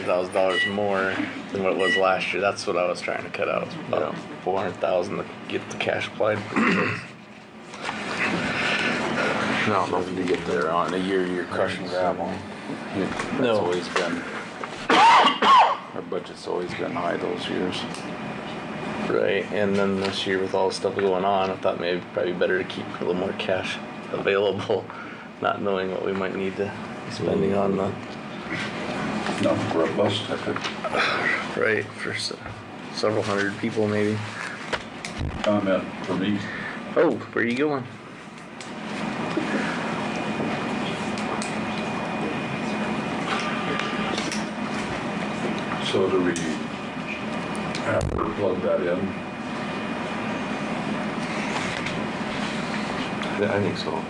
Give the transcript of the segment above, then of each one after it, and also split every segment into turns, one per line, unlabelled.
thousand dollars more than what it was last year. That's what I was trying to cut out. was About four hundred thousand to get the cash applied. for kids.
No, nothing to get there on. A year, you're crushing gravel. That's
No.
always been, our budget's always been high those years.
Right, and then this year with all the stuff going on, I thought maybe probably better to keep a little more cash available, not knowing what we might need to be spending on the
Not robust, I could
right for se- several hundred people maybe.
comment for me.
Oh, where are you going?
So do we have to plug that in?
Yeah, I think so.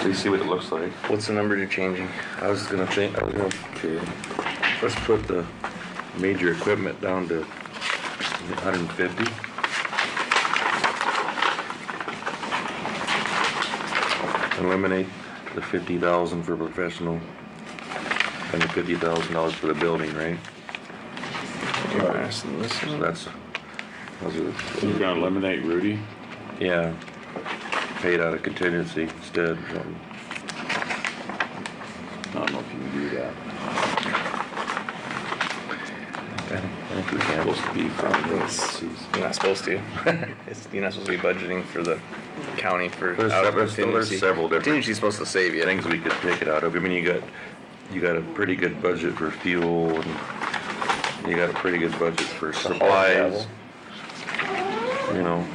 So you see what it looks like.
What's the number you're changing?
I was gonna think, I was gonna, okay, let's put the major equipment down to hundred and fifty. Eliminate the fifty thousand for professional and the fifty thousand dollars for the building, right?
Interesting. This
So
one.
that's, those are, the-
You're gonna eliminate Rudy?
yeah, paid out of contingency instead. um,
I don't know if you can do that.
I think I think we can.
Supposed to be from
It's- You're not supposed to. it's, you're not supposed to be budgeting for the county for
There's
out of
several- there's
contingency.
several different-
Contingency's supposed to save you. I think
things we could take it out of. I mean, you got, you got a pretty good budget for fuel and you got a pretty good budget for supplies. You know,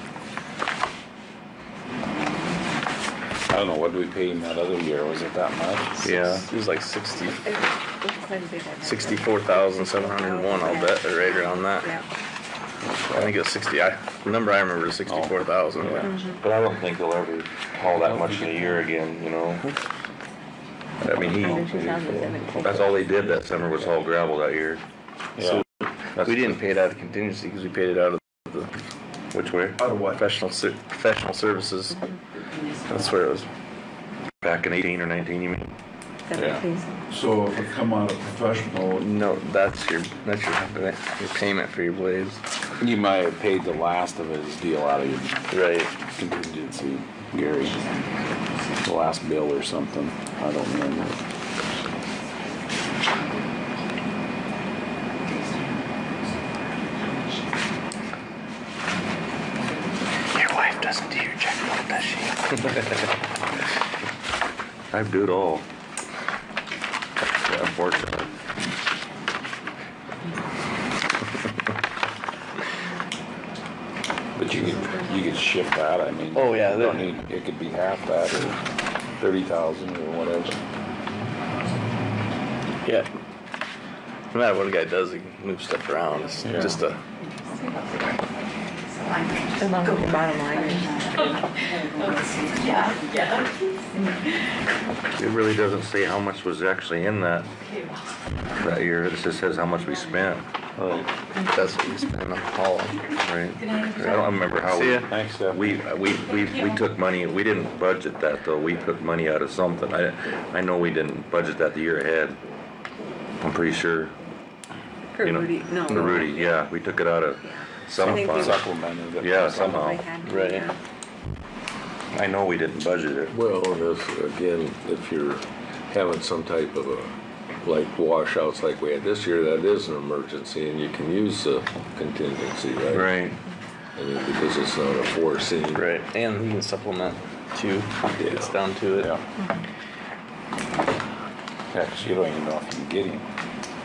I don't know, what did we pay him that other year? Was it that much?
yeah.
it was like 60,
It was- it was quite a big one.
64,701, I'll bet, or right around that.
Yeah.
I think it was 60. I, the number I remember is 64,000.
Oh.
Yeah.
But I don't think they'll ever haul that much in a year again, you know? I mean,
In
he,
2017.
that's all they did that summer was haul gravel that year.
Yeah.
That's-
We didn't pay it out of contingency because we paid it out of the
Which way?
Out of what?
professional ser- professional services. That's where it was.
Back in eighteen or nineteen, you mean?
Seventeen.
So if it come out of professional,
No, that's your that's your, your payment for your blades.
You might have paid the last of his deal out of your
Right.
contingency, Gary. The last bill or something. I don't remember.
Your wife doesn't do your checkbook, does she?
I do it all. Yeah, Unfortunately.
But you could, you could shift that, I mean.
Oh, yeah,
you
that-
Don't need, it could be half that or thirty thousand or whatever.
Yeah. No matter what a guy does, he can move stuff around. It's
Yeah.
just a
As long as the bottom line is,
It really doesn't say how much was actually in that, that year. It just says how much we spent,
that's what you spend on all.
right? I don't remember how.
See ya.
Thanks, Steph.
We, we, we, we took money, we didn't budget that though. We took money out of something. I, I know we didn't budget that the year ahead. I'm pretty sure.
for
you know.
Rudy, no.
For Rudy, yeah. We took it out of
I
some
think we-
fund.
Supplemented it.
Yeah,
Probably
somehow.
had-
Right.
yeah.
I know we didn't budget it.
Well, this, again, if you're having some type of a, like washouts like we had this year, that is an emergency and you can use the contingency, right?
Right.
I mean, because it's not a foreseen.
Right. And you can supplement too. It's down to it.
Yeah. Yeah, 'cause you don't even know if you can get him.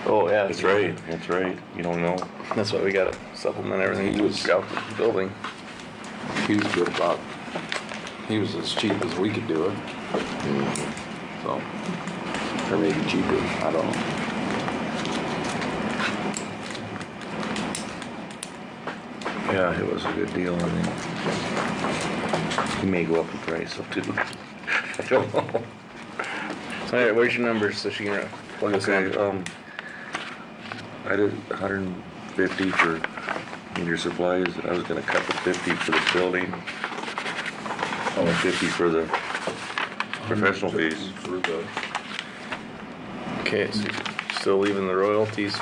Oh yeah.
That's right, that's right. You don't know.
That's why we gotta supplement everything
He
to
was-
scout the building.
He was good about, he was as cheap as we could do it. So, or maybe cheaper, I don't know.
Yeah, it was a good deal, I think. He may go up in price up to, I don't know.
All right, where's your number so she can plug us
Okay,
in?
um, I did hundred and fifty for your supplies, I was gonna cut the fifty for the building. Only fifty for the professional fees.
for the
Okay, so you're still leaving the royalties